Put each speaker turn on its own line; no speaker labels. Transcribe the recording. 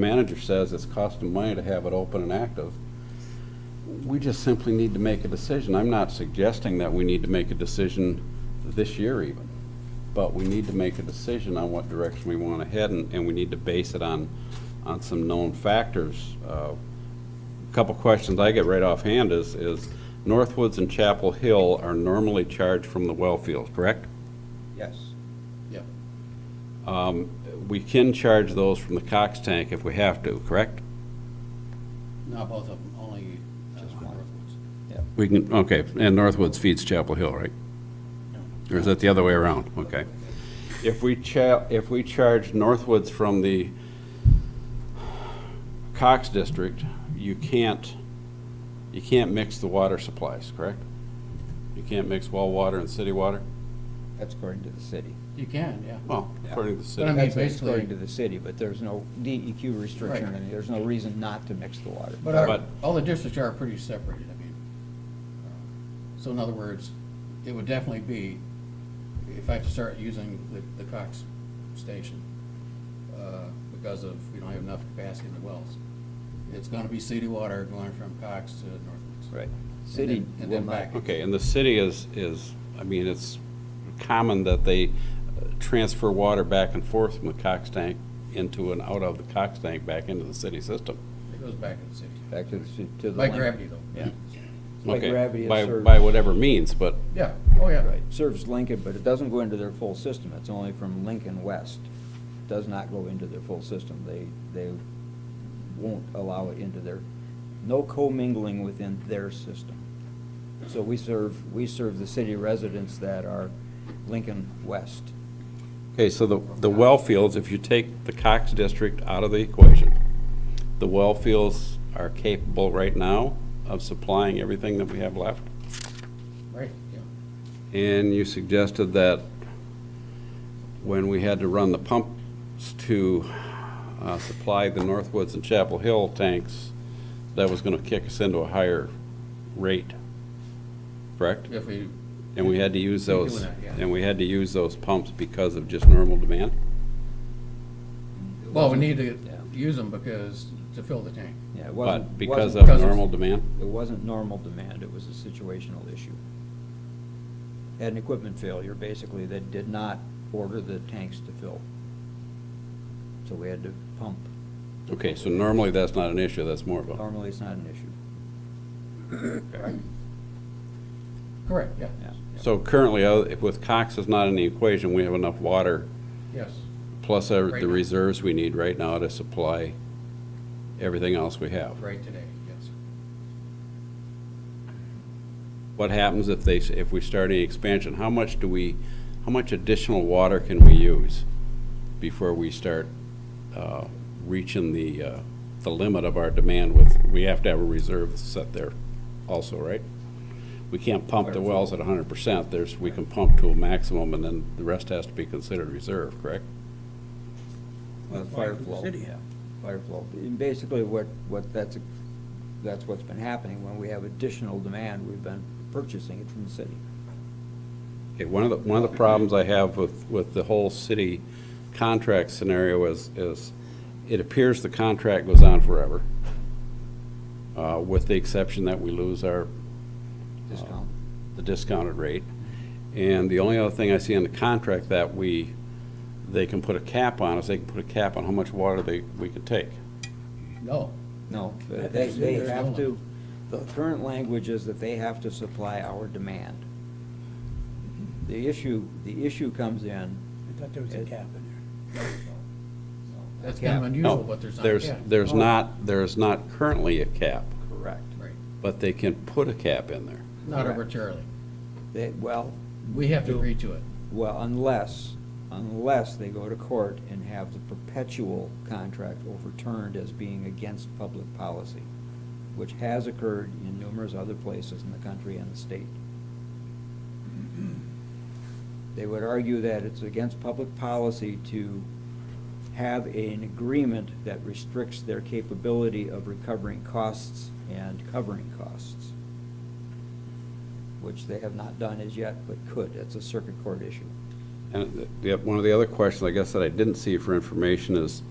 manager says it's costing money to have it open and active, we just simply need to make a decision. I'm not suggesting that we need to make a decision this year even, but we need to make a decision on what direction we want to head, and, and we need to base it on, on some known factors. Uh, couple questions I get right offhand is, is Northwoods and Chapel Hill are normally charged from the well field, correct?
Yes.
Yep.
We can charge those from the Cox tank if we have to, correct?
Not both of them, only uh, Northwoods.
We can, okay, and Northwoods feeds Chapel Hill, right? Or is that the other way around? Okay. If we cha, if we charge Northwoods from the Cox District, you can't, you can't mix the water supplies, correct? You can't mix well water and city water?
That's according to the city.
You can, yeah.
Well, according to the
But
city.
I mean-
That's
basically-
according to the city, but there's no DEQ restriction,
Right.
and there's no reason not to mix the water.
But our,
But-
all the districts are pretty separated, I mean. uh, So in other words, it would definitely be, if I have to start using the, the Cox station, uh, because of, we don't have enough capacity in the wells, it's gonna be city water going from Cox to Northwoods.
Right.
And
City
then- and
will
then
not.
back.
Okay, and the city is, is, I mean, it's common that they uh, transfer water back and forth from the Cox tank into and out of the Cox tank back into the city system.
It goes back to the city.
Back to the, ci- to the.
By
land.
gravity though.
Yeah. By
Okay,
gravity, it
by-
serves.
By whatever means, but,
Yeah, oh yeah.
Right, serves Lincoln, but it doesn't go into their full system. It's only from Lincoln West. Does not go into their full system. They, they won't allow it into their, no commingling within their system. So we serve, we serve the city residents that are Lincoln West.
okay, so the, the well fields, if you take the Cox district out of the equation, the well fields are capable right now of supplying everything that we have left?
Right, yeah.
And you suggested that when we had to run the pumps to uh, supply the Northwoods and Chapel Hill tanks, that was going to kick us into a higher rate, correct?
If we,
And we had to use
We're doing
those,
that, yeah.
and we had to use those pumps because of just normal demand?
well, we need to
Yeah.
use them because, to fill the tank.
Yeah, it wasn't.
But because
wasn't-
of
because of-
normal demand?
It wasn't normal demand, it was a situational issue. Had an equipment failure, basically, that did not order the tanks to fill. So we had to pump.
Okay, so normally that's not an issue, that's more of a,
Normally, it's not an issue.
Correct, yeah.
Yeah.
so currently, uh, with Cox is not in the equation, we have enough water
Yes,
plus our-
Right
the
now.
reserves we need right now to supply everything else we have.
right today, yes.
What happens if they, s- if we start any expansion? How much do we, how much additional water can we use before we start uh, reaching the, uh, the limit of our demand with, we have to have a reserve set there also, right? We can't pump the wells at hundred percent. There's, we can pump to a maximum and then the rest has to be considered reserve, correct?
Well, Uh, fire flow. yeah, Fire flow. And basically, what, what, that's, a- that's what's been happening. When we have additional demand, we've been purchasing it from the city.
Okay, one of the, one of the problems I have with, with the whole city contract scenario is, is it appears the contract goes on forever, uh, with the exception that we lose our,
Discount.
the discounted rate. And the only other thing I see in the contract that we, they can put a cap on is they can put a cap on how much water they, we can take.
No,
No,
I
they,
think
they
there's
have
no
to, the current language is that they have to supply our demand. The issue, the issue comes in,
I thought there was a cap in there.
that's kind of
No,
unusual, but there's not. Oh.
There's,
yeah.
there's not, there's not currently a cap,
correct,
Right,
but they can put a cap in there.
not
Correct.
arbitrarily.
they, well,
We have to agree to it.
well, unless, unless they go to court and have the perpetual contract overturned as being against public policy, which has occurred in numerous other places in the country and the state. They would argue that it's against public policy to have an agreement that restricts their capability of recovering costs and covering costs, which they have not done as yet, but could. It's a circuit court issue.
uh, And the- the- one of the other questions, I guess, that I didn't see for information is,